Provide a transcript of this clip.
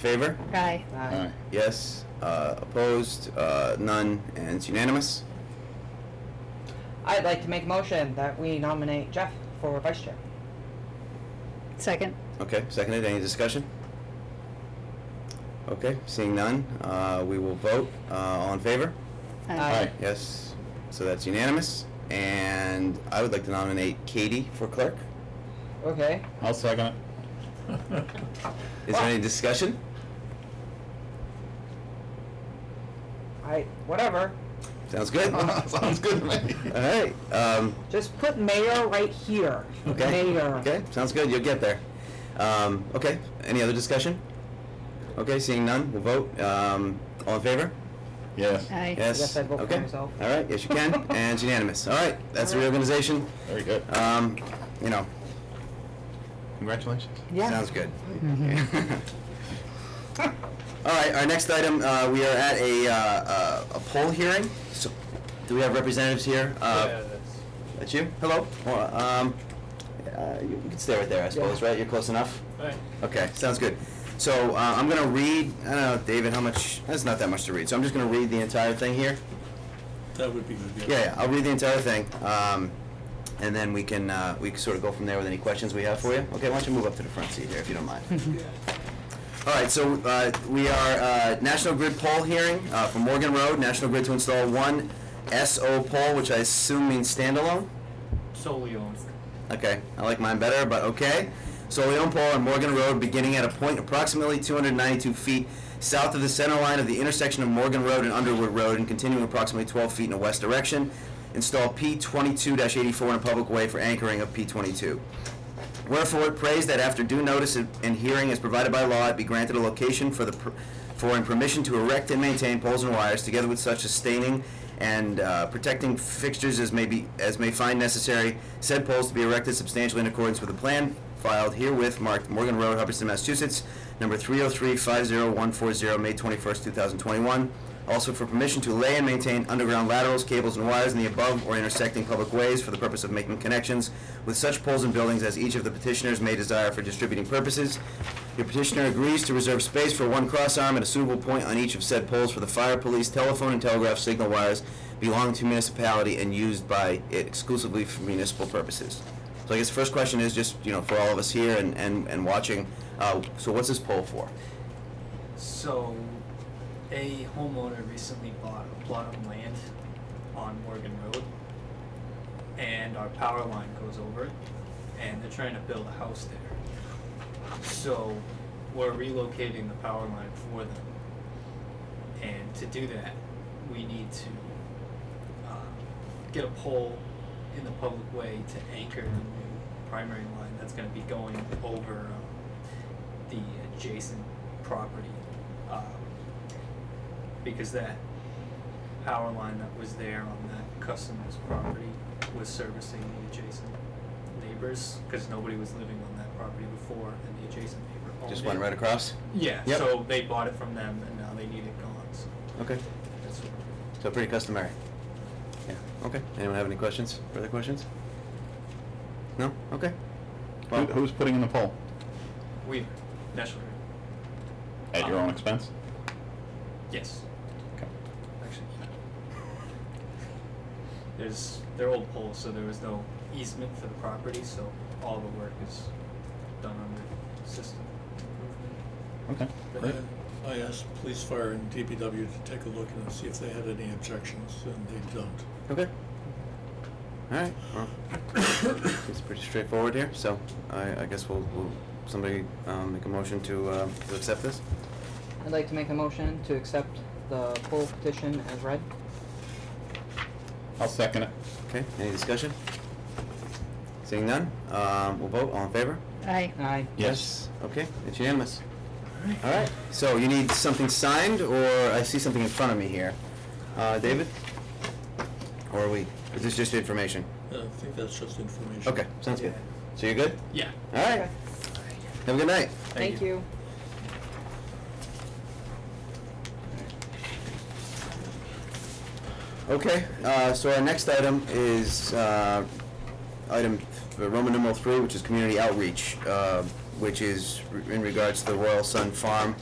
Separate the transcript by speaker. Speaker 1: Favor?
Speaker 2: Aye.
Speaker 1: Aye. Yes. Uh, Opposed? Uh, None, and it's unanimous.
Speaker 3: I'd like to make a motion that we nominate Jeff for vice chair.
Speaker 2: Second.
Speaker 1: Okay, seconded. Any discussion? Okay, seeing none, uh, we will vote. Uh, All in favor?
Speaker 3: Aye.
Speaker 1: Yes. So that's unanimous. And I would like to nominate Katie for clerk.
Speaker 3: Okay.
Speaker 4: I'll second it.
Speaker 1: Is there any discussion?
Speaker 3: I whatever.
Speaker 1: Sounds good?
Speaker 4: Sounds good to me.
Speaker 1: All right. um,
Speaker 3: Just put mayor right here.
Speaker 1: Okay.
Speaker 3: Mayor.
Speaker 1: Okay, sounds good. You'll get there. Um, Okay, any other discussion? Okay, seeing none, we'll vote. Um, All in favor?
Speaker 4: Yes.
Speaker 2: Aye.
Speaker 1: Yes.
Speaker 3: Yes, I'd vote for
Speaker 1: Okay.
Speaker 3: myself.
Speaker 1: All right. Yes, you can. and it's unanimous. All right. That's the
Speaker 3: All right.
Speaker 1: reorganization.
Speaker 4: Very good.
Speaker 1: Um, you know,
Speaker 4: Congratulations.
Speaker 3: Yeah. Mm-hmm.
Speaker 1: sounds good. All right. Our next item, uh, we are at a, uh, uh, a poll hearing. So, do we have representatives here? Uh, That's you. Hello. Well, Um, uh, you you can stay right there, I suppose. Right. You're close enough. Okay, sounds good. So uh, I'm going to read, I don't know, David, how much, that's not that much to read, so I'm just going to read the entire thing here.
Speaker 5: That would be good, yeah.
Speaker 1: Yeah, yeah, I'll read the entire thing, um, and then we can, uh, we can sort of go from there with any questions we have for you. Okay, why don't you move up to the front seat here, if you don't mind. All right, so uh, we are uh, National Grid poll hearing uh, for Morgan Road, National Grid to install one SO pole, which I assume means standalone?
Speaker 6: solely owned.
Speaker 1: Okay, I like mine better, but okay. So Leon Paul and Morgan Road, beginning at a point approximately 292 feet south of the center line of the intersection of Morgan Road and Underwood Road, and continuing approximately 12 feet in a west direction. Install P22-84 in a public way for anchoring of P22. Wherefore it prays that after due notice and hearing as provided by law, it be granted a location for the, per- for and permission to erect and maintain poles and wires, together with such sustaining and uh, protecting fixtures as may be, as may find necessary, said poles to be erected substantially in accordance with the plan filed herewith marked Morgan Road, Hubbardston, Massachusetts, number 303-50140, May 21st, 2021. Also for permission to lay and maintain underground laterals, cables, and wires in the above or intersecting public ways for the purpose of making connections with such poles and buildings as each of the petitioners may desire for distributing purposes. Your petitioner agrees to reserve space for one cross arm at a suitable point on each of said poles for the fire, police, telephone, and telegraph signal wires belonging to municipality and used by it exclusively for municipal purposes. So I guess the first question is just, you know, for all of us here and, and, and watching, uh, so what's this pole for?
Speaker 6: So, a homeowner recently bought a plot of land on Morgan Road, and our power line goes over it, and they're trying to build a house there. So, we're relocating the power line for them, and to do that, we need to um, get a pole in the public way to anchor the
Speaker 1: Mm-hmm.
Speaker 6: new primary line that's going to be going over um, the adjacent property. um, Because that power line that was there on that customer's property was servicing the adjacent neighbors, because nobody was living on that property before, and the adjacent neighbor owned it.
Speaker 1: Just went right across?
Speaker 6: Yeah,
Speaker 1: Yep.
Speaker 6: so they bought it from them, and now they need it gone, so
Speaker 1: Okay.
Speaker 6: that's what we're doing.
Speaker 1: So pretty customary. Yeah, okay. Anyone have any questions? Further questions? No? Okay.
Speaker 4: Who- Who's putting in the poll?
Speaker 6: Weaver, National Grid.
Speaker 4: At your own expense?
Speaker 6: Yes.
Speaker 4: Okay.
Speaker 6: Actually, yeah. There's, they're old poles, so there was no easement for the property, so all the work is done under system improvement.
Speaker 4: Okay, great.
Speaker 5: And I asked police, fire, and DPW to take a look and see if they had any objections, and they don't.
Speaker 1: Okay. All right. Well, it's pretty straightforward here, so I, I guess we'll, we'll, somebody, um, make a motion to, uh, to accept this?
Speaker 3: I'd like to make a motion to accept the poll petition as read.
Speaker 4: I'll second it.
Speaker 1: Okay, any discussion? Seeing none, um, we'll vote, all in favor?
Speaker 2: Aye.
Speaker 3: Aye.
Speaker 4: Yes.
Speaker 1: Okay, it's unanimous. All right, so you need something signed, or I see something in front of me here. Uh, David? Or are we, is this just information?
Speaker 5: I think that's just information.
Speaker 1: Okay, sounds good. So you're good?
Speaker 6: Yeah.
Speaker 1: All right, have a good night.
Speaker 3: Thank you.
Speaker 1: Okay, uh, so our next item is, uh, item th- Roman uh, numeral three, which is community outreach, uh, which is re- in regards to the Royal Sun Farm,